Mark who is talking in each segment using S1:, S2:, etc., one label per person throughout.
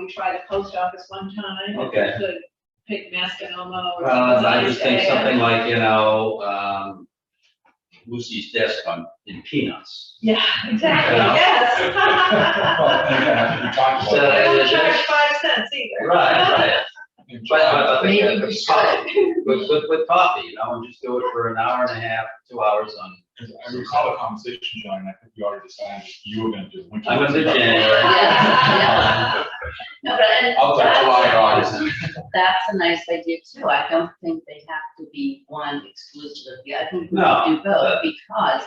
S1: we tried the post office one time. and we
S2: Okay.
S1: could Pick Mascanoma or.
S2: Well, I just think
S1: Yeah.
S2: something like, you know, um, Lucy's desk on, in peanuts.
S1: Yeah, exactly,
S2: Yeah.
S1: yes.
S2: So
S1: I
S2: that
S1: don't
S2: is-
S1: charge
S2: Right,
S1: five cents either.
S2: right. But I I think
S3: Maybe
S2: that-
S3: we should.
S2: With, with, with coffee, you know, and just do it for an hour and a half, two hours on,
S4: I recall a conversation, John, and I think we already decided you were gonna do winter.
S2: I'm gonna do January.
S3: Yeah, No, but and
S4: I'll do July, and August.
S3: that's a nice idea too. I don't think they have to be one exclusive of the other. I think we
S2: No,
S3: can do both
S2: but-
S3: because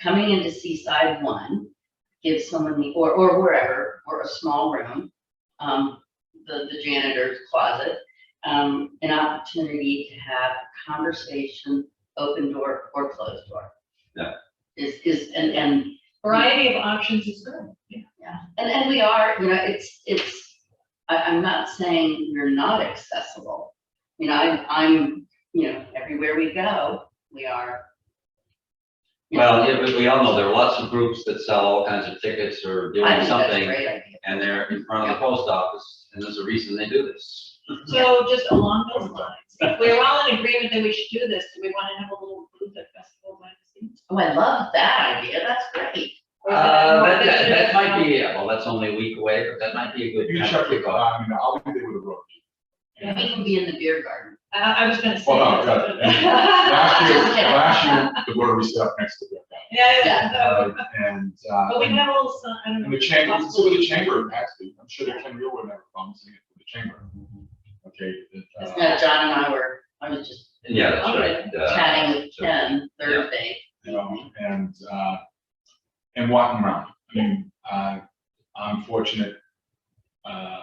S3: coming into Seaside One gives someone the, or, or wherever, or a small room, um, the, the janitor's closet, um, an opportunity to have a conversation, open door or closed door.
S2: Yeah.
S3: Is, is, and, and
S1: Variety of options is good. Yeah.
S3: yeah, and, and we are, you know, it's, it's, I, I'm not saying we're not accessible. You know, I'm, I'm, you know, everywhere we go, we are. you know,
S2: Well, yeah, but we all know there are lots of groups that sell all kinds of tickets or doing
S3: I think that's a
S2: something,
S3: great idea.
S2: and they're in front of the post office, and there's a reason they do this.
S1: So just along those lines, if we're all in agreement that we should do this, do we want to have a little booth at Festival by the Sea?
S3: Oh, I love that idea, that's great.
S1: Or is
S2: Uh,
S1: more
S2: that, that,
S1: than-
S2: that might be, yeah, well, that's only a week away, but that might be a good.
S4: You
S2: time
S4: can
S2: to
S4: check
S2: kick
S4: with,
S2: off.
S4: I mean, I'll be there with a rope.
S3: We can be in the beer garden.
S1: I, I was gonna say.
S4: Well, no,
S1: that.
S4: no, Last year, last year, the Rotary set up next to that.
S1: Yeah, yeah,
S4: Uh,
S1: no.
S4: And,
S1: But
S4: uh,
S1: we can have a little, sun- I don't know.
S4: and the chamber, it's with the chamber, actually, I'm sure that Ken Real would have problems with the chamber. Okay. that, uh,
S3: It's not, John and I were, I was just
S2: Yeah, that's right. uh,
S3: chatting with
S2: so-
S3: Ken Thursday.
S4: you know, and, uh, and walking around. I mean, uh, I'm fortunate, uh,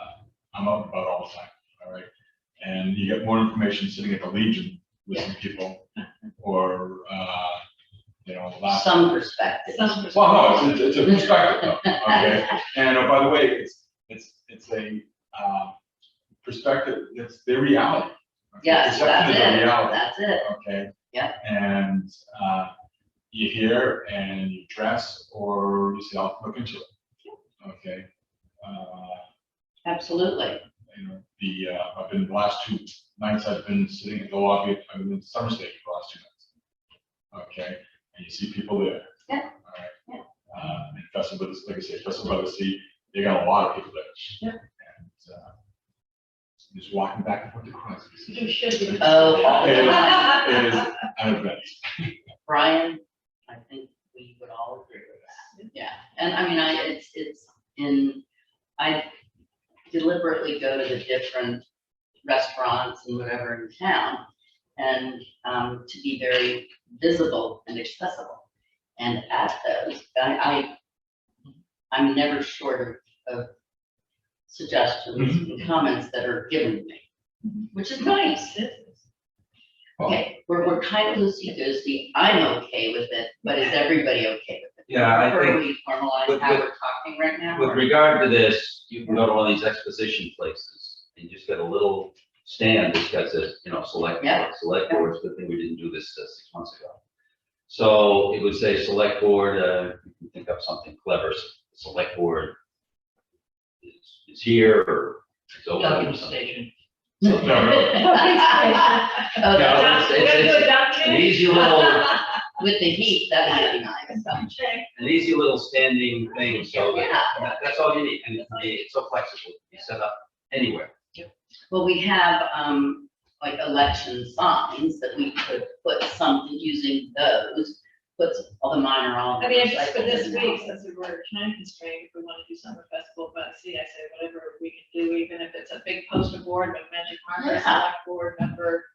S4: I'm up about all the time, all right? And you get more information sitting at the Legion with some people, or, uh, you know, last.
S3: Some perspective.
S1: Some-
S4: Well, no, it's, it's a perspective, though, okay? And oh, by the way, it's, it's, it's a, uh, perspective, it's their reality. okay?
S3: Yes,
S4: Perception
S3: that's
S4: is
S3: it,
S4: a reality
S3: that's it.
S4: okay?
S3: Yeah.
S4: And, uh, you hear and you dress or you say, I'll look into it. Okay, uh,
S3: Absolutely.
S4: you know, the, uh, I've been, the last two nights I've been sitting in the lobby, I've been in summer state for the last two nights. Okay, and you see people there.
S3: Yeah.
S4: All right. Uh, and festival, is- like I said, festival by the sea, they got a lot of people there.
S1: Yeah.
S4: And, uh, just walking back and forth across.
S1: You should be. uh,
S3: Oh,
S4: all the It
S3: time.
S4: is an event.
S3: Brian, I think we would all agree with that. Yeah, and I mean, I, it's, it's in, I deliberately go to the different restaurants and whatever in town and, um, to be very visible and accessible. And at those, I, I, I'm never short of, of suggestions and comments that are given to me, which is nice. Okay, we're, we're kind of loosey-goosey, I'm okay with it, but is everybody okay with it?
S2: Yeah, I
S3: Or
S2: think-
S3: we formalize
S2: with-
S3: how
S2: with-
S3: we're talking right now?
S2: With regard to this, you can go to one of these exposition places and just get a little stand that's got the, you know, select,
S3: Yeah.
S2: board, select boards, good thing we didn't do this uh, six months ago. So it would say select board, uh, you can think up something clever, s- select board is, is here or is open or something.
S4: No, no,
S3: Oh,
S2: Yeah.
S3: that's-
S2: it's- it's- it's An easy little,
S3: With the heat, that might be nice.
S2: an easy little standing thing, so that-
S3: Yeah,
S2: that- that's all you need, and it- it's so flexible, you set up anywhere.
S3: well, we have, um, like election signs that we could put something using those, put some- all the minor all.
S1: I mean, if it's for this week, since we were time constrained, if we want to do summer festival, but see, I say whatever we can do, even if it's a big poster board with magic marker,
S3: Yeah.
S1: select board member,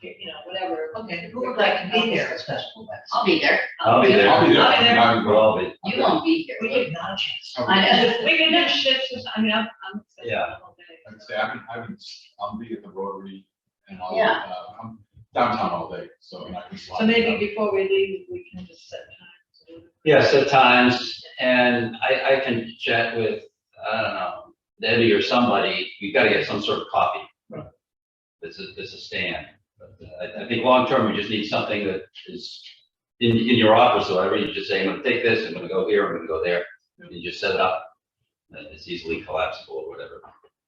S1: you know, whatever.
S5: Okay, who would like to be there at Festival West?
S3: I'll be there,
S2: I'll be there.
S4: I'll be there.
S1: I'll be there.
S4: I'll be
S2: We'll all be.
S3: you won't be here.
S5: We did not chance.
S4: there.
S3: I know,
S1: We can have shifts, or something. I mean, I'm, I'm. excited
S2: Yeah.
S1: all day.
S4: I'd say I've been, I've been, I'll be at the Rotary and I'll,
S3: Yeah.
S4: uh, I'm downtown all day, so I can slide.
S1: So maybe before we leave, we can just set time.
S2: Yes, at times, and I, I can chat with, I don't know, Debbie or somebody, you gotta get some sort of copy. It's a, it's a stand, but uh, I, I think long-term, we just need something that is in, in your office or whatever, you just say, I'm gonna take this, I'm gonna go here, I'm gonna go there, and you just set it up. And it's easily Uh, collapsible or whatever.